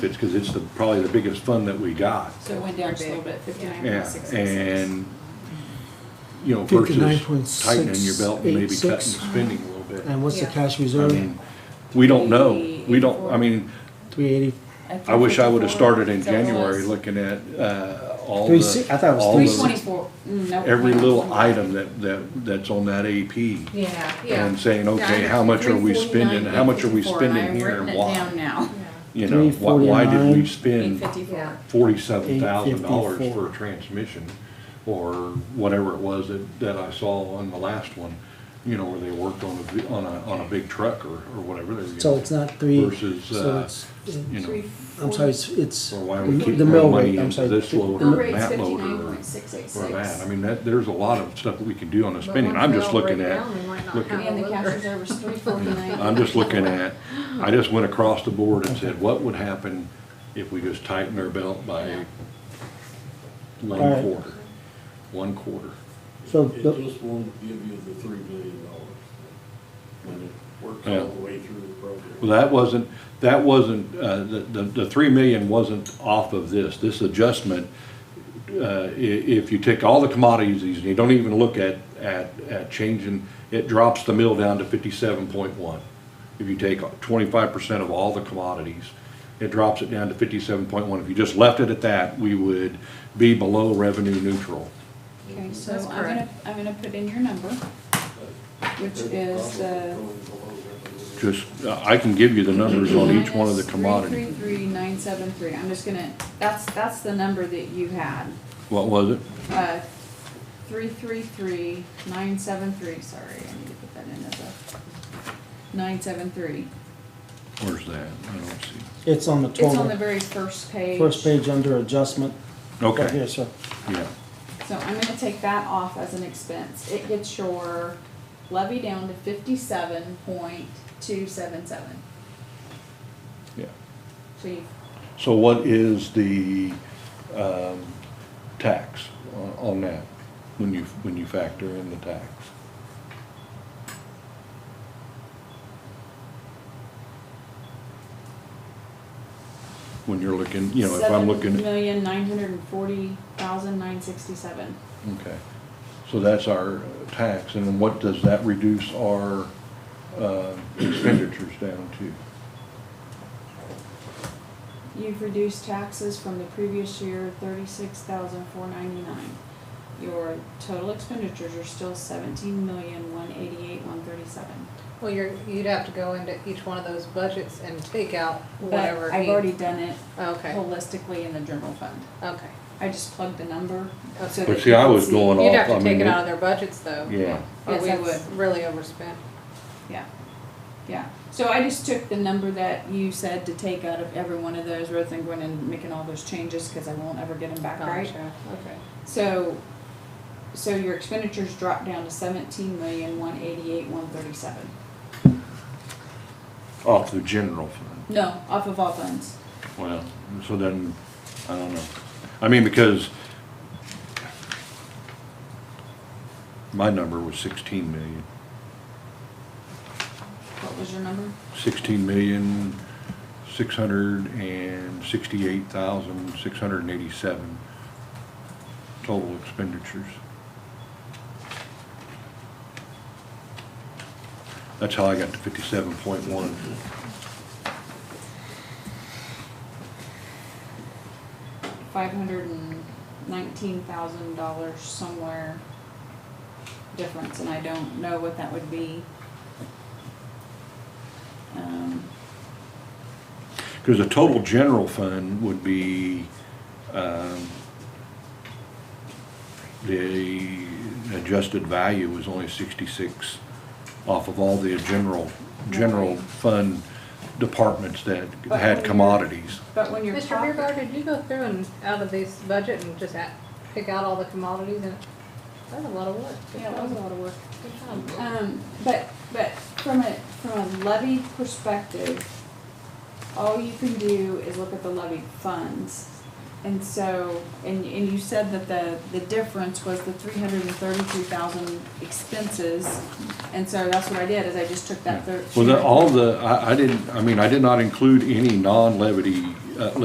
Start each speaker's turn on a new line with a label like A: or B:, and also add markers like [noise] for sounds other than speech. A: It's because it's the, probably the biggest fund that we got.
B: So it went down just a little bit, fifty-nine point
A: Yeah,
B: six six six.
A: and, you know, versus tightening your belt and maybe cutting
C: 59.686.
A: spending a little bit.
C: And what's the
B: Yeah.
C: cash
A: I
C: reserve?
A: mean, we don't know. We don't, I mean,
C: Three eighty,
A: I wish I would've started in January looking at, uh, all
C: Three si- I thought it
A: the,
C: was
A: all
C: three
B: Three
A: the,
B: twenty-four, mm, no.
A: every little item that, that, that's on that AP.
B: Yeah, yeah.
A: And saying, okay, how much are we spending, how much are we spending here and
B: I've written it down
A: why?
B: now.
A: You know, why, why did we
B: Eight
A: spend
B: fifty-four.
A: forty-seven thousand dollars
C: 854.
A: for a transmission, or whatever it was that, that I saw on the last one, you know, where they worked on a, vi- on a, on a big truck or, or whatever they were.
C: so
A: getting.
C: it's not three,
A: Versus,
C: so
A: uh,
C: it's,
A: You know,
C: I'm sorry, it's, it's
A: or why we keep
C: the mill
A: throwing money
C: rate, I'm
A: into
C: sorry.
A: this loader,
B: Mill
A: or
B: rate's
A: that
B: fifty-nine
A: loader, or
B: point six eight
A: or that, I
B: six.
A: mean, that, there's a lot of stuff that we can do on the spending, I'm just looking at, looking-
B: And the cash reserve is
A: [laughs]
B: three
A: I'm just looking at, I just went across the board and said, what would happen if we just tightened our belt by one
C: Alright.
A: quarter? One quarter.
C: So
D: It
C: the-
D: just won't give you the three million dollars when it works
A: Yeah.
D: all the way through the program.
A: Well, that wasn't, that wasn't, uh, the, the, the three million wasn't off of this. This adjustment, uh, i- if you take all the commodities, and you don't even look at, at, at changing, it drops the mill down to fifty-seven point one. If you take twenty-five percent of all the commodities, it drops it down to fifty-seven point one. If you just left it at that, we would be below revenue neutral.
B: Okay, so I'm
E: That's
B: gonna,
E: correct.
B: I'm gonna put in your number, which is, uh.
A: Just, uh, I can give you the numbers on each one of the
B: Three,
A: commodities.
B: three, three, nine, seven, three, I'm just gonna, that's, that's the number that you had,
A: What was it?
B: uh, three, three, three, nine, seven, three, sorry, I need to put that in as a, nine, seven, three.
A: Where's that? I don't see.
C: it's on the
B: It's on the
C: twelve,
B: very first page.
C: first page under adjustment.
A: Okay.
C: Right here, sir.
A: Yeah.
B: So I'm gonna take that off as an expense. It gets your levy down to fifty-seven point two seven seven.
A: Yeah.
B: So you,
A: So what is the, um, tax on- on that, when you, when you factor in the tax? When you're looking, you know, if I'm looking,
B: Seven million nine hundred and forty thousand nine sixty-seven.
A: okay, so that's our tax, and then what does that reduce our, uh, expenditures down to?
B: You've reduced taxes from the previous year thirty-six thousand four ninety-nine. Your total expenditures are still seventeen million one eighty-eight one thirty-seven.
E: Well, you're, you'd have to go into each one of those budgets and take out whatever.
B: But I've
E: he-
B: already done it
E: Okay,
B: holistically in the general fund.
E: okay.
B: I just plugged the number. so
E: Okay.
B: that
A: But see,
B: you
A: I
B: can
A: was
B: see.
A: going
E: You'd
A: off,
E: have
A: I
E: to take
A: mean,
E: it out of their budgets though.
A: yeah.
E: Or
B: Yes, I
E: we've
B: would.
E: Really overspent.
B: Yeah, yeah. So I just took the number that you said to take out of every one of those rather than going and making all those changes because I won't ever get them back, right?
E: Gotcha, okay.
B: So, so your expenditures dropped down to seventeen million, one eighty-eight, one thirty-seven.
A: off the general fund.
B: No, off of all funds.
A: Well, so then, I don't know. I mean, because my number was sixteen million.
B: What was your number?
A: Sixteen million, six hundred and sixty-eight thousand, six hundred and eighty-seven total expenditures. That's how I got to fifty-seven point one.
B: Five hundred and nineteen thousand dollars somewhere difference, and I don't know what that would be. Um,
A: Because the total general fund would be, um, the adjusted value was only sixty-six off of all the general, general
B: Right.
A: fund departments that
B: But
A: had
B: when you're-
A: commodities.
B: But when you're
E: Mr.
B: talking.
E: Beerbauer, did you go through and out of this budget and just at, pick out all the commodities and, that's a lot of work. Good
B: Yeah, that
E: job.
B: was a lot of work.
E: Good job.
B: Um, but, but from a, from a levy perspective, all you can do is look at the levy funds. And so, and, and you said that the, the difference was the three hundred and thirty-three thousand expenses. And so that's what I did, is I just took that third.
A: Well, the, all the, I, I didn't, I mean, I did not include any non-levity uh,